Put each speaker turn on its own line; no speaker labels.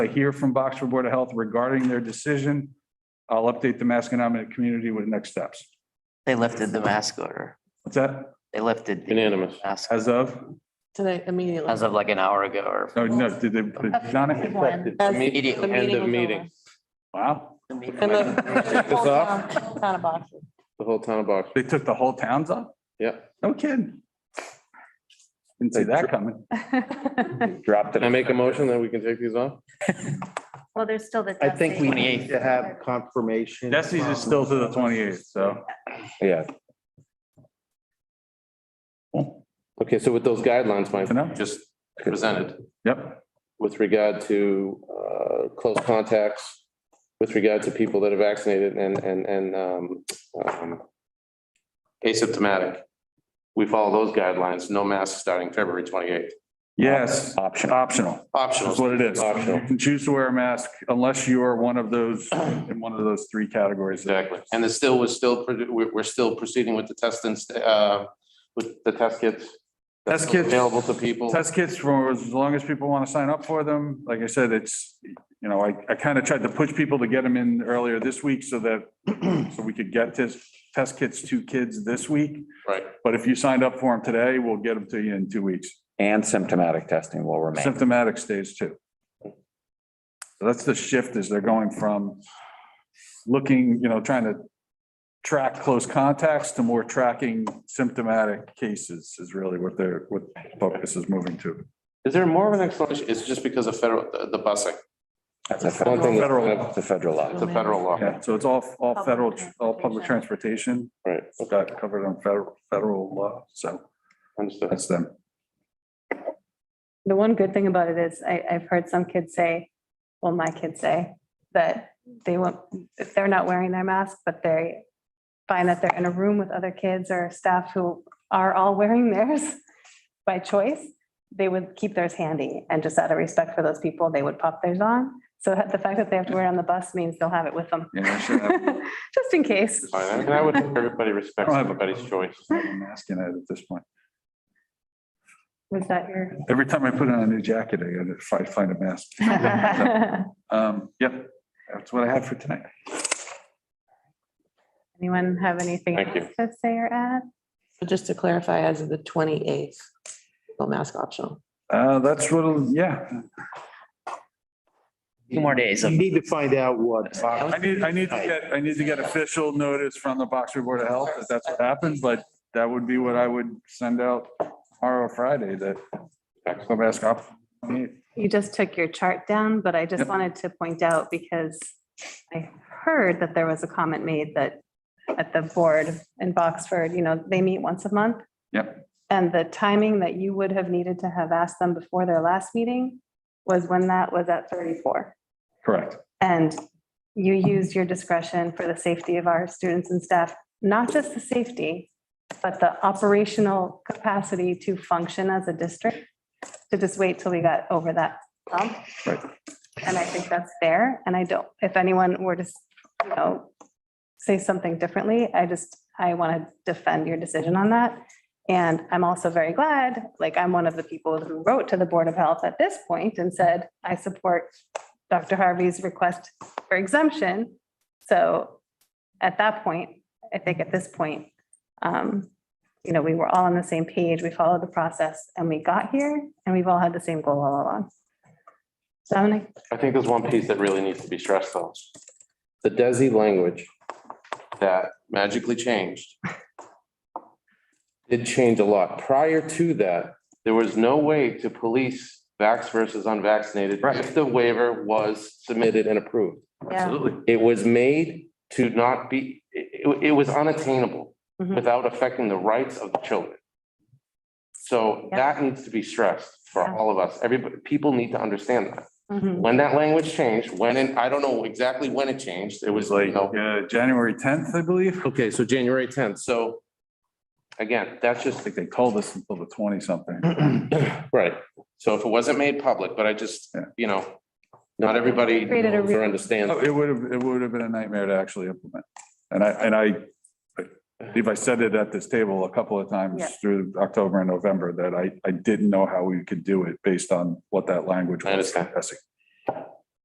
I hear from Boxford Board of Health regarding their decision. I'll update the Masconomic community with next steps.
They lifted the mask order.
What's that?
They lifted the
Unanimous.
mask
As of?
Today, immediately.
as of like an hour ago or
No, no, did they put it on it?
As the
immediately.
meeting
End of
was over.
meeting.
Wow,
And
Take
the-
this off?
Town of Oxford.
The whole town of Boxford.
they took the whole towns off?
Yeah.
No kidding. Didn't see that coming.
Dropped it.
Can I make a motion that we can take these off?
Well, there's still the.
I think we
28th.
need to have confirmation.
Desi's is still to the twenty-eighth, so.
Yeah.
Okay, so with those guidelines, Mike,
you know?
just presented
Yep,
with regard to uh, close contacts, with regard to people that are vaccinated and, and, and um, um, asymptomatic. We follow those guidelines, no masks starting February 28th.
yes, optional. That's
Optional.
what it is.
Optional.
You can choose to wear a mask unless you are one of those, in one of those three categories.
Exactly. And it's still, we're still, we're, we're still proceeding with the test and, uh, with the test kits.
Test kits.
Available to people.
Test kits for as long as people want to sign up for them. Like I said, it's, you know, I, I kind of tried to push people to get them in earlier this week so that, so we could get this, test kits to kids this week.
Right.
But if you signed up for them today, we'll get them to you in two weeks.
And symptomatic testing will remain.
Symptomatic stage two. So that's the shift is they're going from looking, you know, trying to track close contacts to more tracking symptomatic cases is really what their, what focus is moving to.
Is there more of an explanation? It's just because of federal, the- the busing.
That's a
One
federal,
thing,
that's a federal law.
it's a federal law.
Yeah, so it's all, all federal, all public transportation,
Right,
It's got covered on federal, federal law, so
understood.
that's them.
The one good thing about it is I, I've heard some kids say, well, my kids say that they won't, if they're not wearing their mask, but they find that they're in a room with other kids or staff who are all wearing theirs by choice, they would keep theirs handy and just out of respect for those people, they would pop theirs on. So the fact that they have to wear it on the bus means they'll have it with them.
Yeah, I should have.
Just in case.
Fine, And I would, hope everybody respects
I don't have a-
everybody's choice.
I'm asking it at this point.
Was that your?
Every time I put on a new jacket, I gotta fi- find a mask. Um, yep, that's what I have for tonight.
Anyone have anything
Thank you.
else to say or add?
So Just to clarify, as of the twenty-eighth, no mask optional.
Uh, that's what, yeah,
Two more days
You
of
need to find out what.
I need, I need to get, I need to get official notice from the Boxer Board of Health that that's what happened, but that would be what I would send out tomorrow, or Friday, that the mask off.
You just took your chart down, but I just
Yep.
wanted to point out because I heard that there was a comment made that at the board in Boxford, you know, they meet once a month.
Yep.
And the timing that you would have needed to have asked them before their last meeting was when that was at thirty-four.
Correct.
And you used your discretion for the safety of our students and staff, not just the safety, but the operational capacity to function as a district, to just wait till we got over that hump.
Right.
And I think that's fair. And I don't, if anyone were to, you know, say something differently, I just, I want to defend your decision on that. And I'm also very glad, like, I'm one of the people who wrote to the Board of Health at this point and said, I support Dr. Harvey's request for exemption. So at that point, I think at this point, um, you know, we were all on the same page, we followed the process and we got here and we've all had the same goal all along. Dominic,
I think there's one piece that really needs to be stressed though. The DESI language that magically changed did change a lot. Prior to that, there was no way to police vax versus unvaccinated
Right.
if the waiver was submitted and approved.
yeah,
It was made to not be, it, it was unattainable
Mhm.
without affecting the rights of the children. So
Yeah.
that needs to be stressed for
Yeah.
all of us. Everybody, people need to understand that.
mhm,
When that language changed, when, and I don't know exactly when it changed, it
It was
was like,
like, uh, January tenth, I believe.
okay, so January tenth, so again, that's
I
just,
think they told us until the twenty something.
right. So if it wasn't made public, but I just,
Yeah.
you know, not everybody
Created a
knows
real-
or understands.
Oh, It would have, it would have been a nightmare to actually implement. And I, and I, I believe I said it at this table a couple of times
Yeah.
through October and November that I, I didn't know how we could do it based on what that language was.
I understand.
Yes.